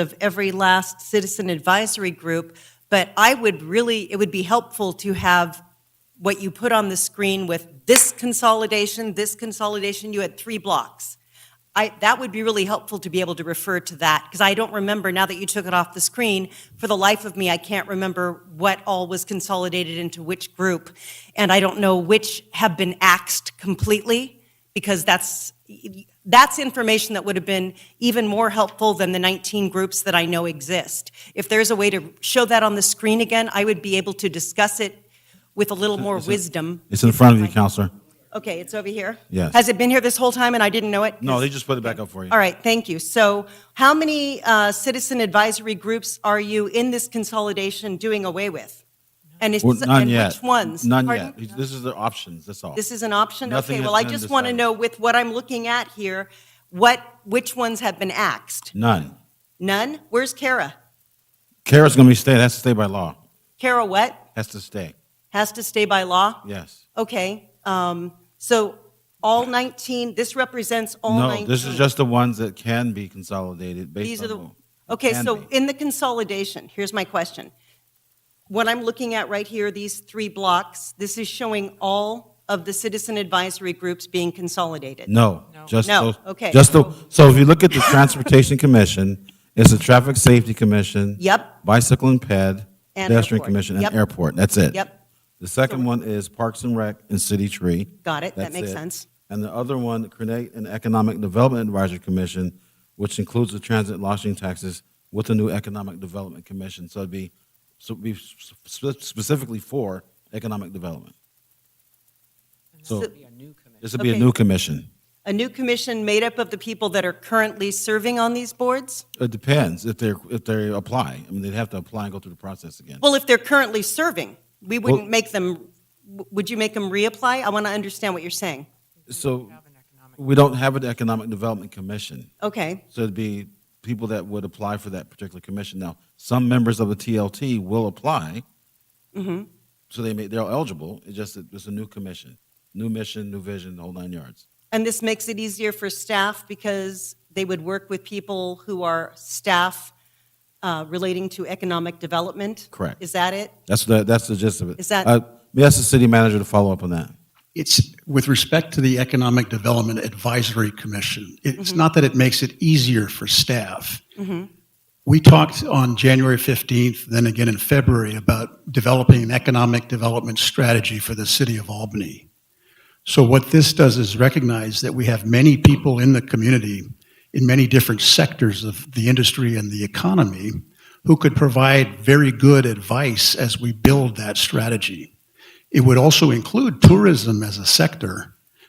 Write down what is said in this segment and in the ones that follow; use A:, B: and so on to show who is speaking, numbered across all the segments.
A: of every last citizen advisory group, but I would really, it would be helpful to have what you put on the screen with this consolidation, this consolidation, you had three blocks. I, that would be really helpful to be able to refer to that, because I don't remember, now that you took it off the screen, for the life of me, I can't remember what all was consolidated into which group, and I don't know which have been axed completely, because that's, that's information that would have been even more helpful than the 19 groups that I know exist. If there's a way to show that on the screen again, I would be able to discuss it with a little more wisdom.
B: It's in front of you, Counselor.
A: Okay, it's over here?
B: Yes.
A: Has it been here this whole time and I didn't know it?
B: No, they just put it back up for you.
A: All right, thank you. So how many uh, citizen advisory groups are you in this consolidation doing away with? And it's,
B: Well, none
A: and
B: yet.
A: which ones?
B: None
A: Pardon?
B: yet. This is the options, that's all.
A: This is an option?
B: Nothing
A: Okay,
B: has
A: well, I
B: been
A: just want to
B: decided.
A: know with what I'm looking at here, what, which ones have been axed?
B: None.
A: None? Where's Kara?
B: Kara's gonna be staying, has to stay by law.
A: Kara what?
B: Has to stay,
A: Has to stay by law?
B: yes.
A: Okay, um, so all 19, this represents all 19?
B: No, this is just the ones that can be consolidated
A: These
B: based
A: are
B: on.
A: the,
B: the-
A: okay,
B: can
A: so
B: be.
A: in the consolidation, here's my question. What I'm looking at right here, these three blocks, this is showing all of the citizen advisory groups being consolidated.
B: No, just
A: No,
B: those.
A: okay.
B: Just the, so if you look at the Transportation Commission, it's the Traffic Safety Commission.
A: Yep.
B: Bicycle and Ped,
A: And
B: Pedestrian
A: airport.
B: Commission, and
A: Yep.
B: Airport, that's it.
A: Yep.
B: The second one is Parks and Rec and City Tree.
A: Got it, that
B: That's
A: makes
B: it.
A: sense.
B: And the other one, create an Economic Development Advisory Commission, which includes the transit lodging taxes with the new Economic Development Commission. So it'd be, so it'd be spe- specifically for economic development. So this would be a
A: Okay.
B: new commission.
A: A new commission made up of the people that are currently serving on these boards?
B: It depends if they're, if they apply. I mean, they'd have to apply and go through the process again.
A: Well, if they're currently serving, we wouldn't
B: Well-
A: make them, w- would you make them reapply? I want to understand what you're saying.
B: So we don't have an Economic Development Commission.
A: Okay,
B: So it'd be people that would apply for that particular commission. Now, some members of the TLT will apply.
A: Mm-hmm.
B: So they may, they're eligible, it's just, that it's a new commission, new mission, new vision, the whole nine yards.
A: and this makes it easier for staff because they would work with people who are staff uh, relating to economic development?
B: Correct.
A: Is that it?
B: That's the, that's the gist of it.
A: Is that-
B: Uh, May I ask the city manager to follow up on that?
C: It's with respect to the Economic Development Advisory Commission. It's not that it makes it easier for staff. We talked on January 15th, then again in February, about developing an economic development strategy for the city of Albany. So what this does is recognize that we have many people in the community in many different sectors of the industry and the economy who could provide very good advice as we build that strategy. It would also include tourism as a sector,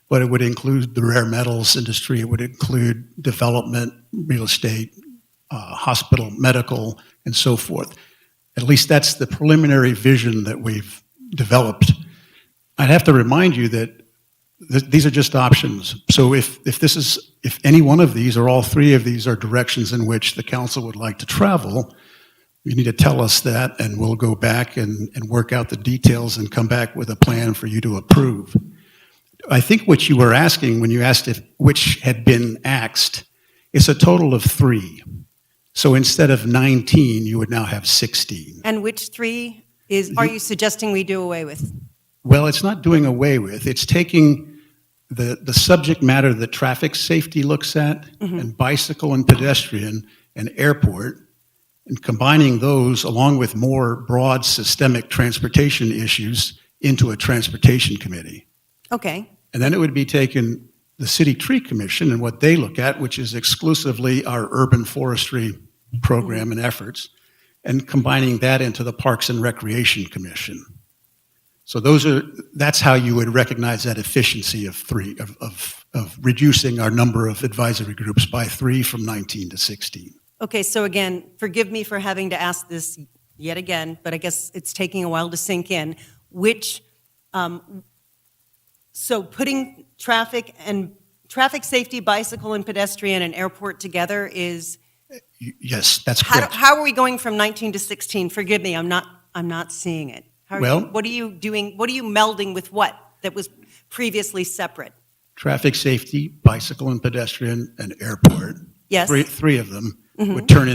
C: but it would include the rare metals industry, it would include development, real estate, uh, hospital, medical, and so forth. At least that's the preliminary vision that we've developed. I'd have to remind you that th- these are just options. So if, if this is, if any one of these or all three of these are directions in which the council would like to travel, you need to tell us that and we'll go back and, and work out the details and come back with a plan for you to approve. I think what you were asking when you asked if, which had been axed, it's a total of three. So instead of 19, you would now have 16.
A: And which three is, are you suggesting we do away with?
C: Well, it's not doing away with, it's taking the, the subject matter that traffic safety looks at, and bicycle and pedestrian, and airport, and combining those along with more broad systemic transportation issues into a transportation committee.
A: Okay,
C: And then it would be taken, the city tree commission and what they look at, which is exclusively our urban forestry program and efforts, and combining that into the Parks and Recreation Commission. So those are, that's how you would recognize that efficiency of three, of, of, of reducing our number of advisory groups by three from 19 to 16.
A: okay, so again, forgive me for having to ask this yet again, but I guess it's taking a while to sink in. Which, um, so putting traffic and, traffic safety, bicycle and pedestrian and airport together is,
C: Y- Yes, that's
A: how,
C: correct.
A: do- how are we going from 19 to 16? Forgive me, I'm not, I'm not seeing it. How are you-
C: Well-
A: What are you doing, what are you melding with what that was previously separate?
C: Traffic safety, bicycle and pedestrian, and airport.
A: Yes? Mm-hmm.
C: Three, three of them would turn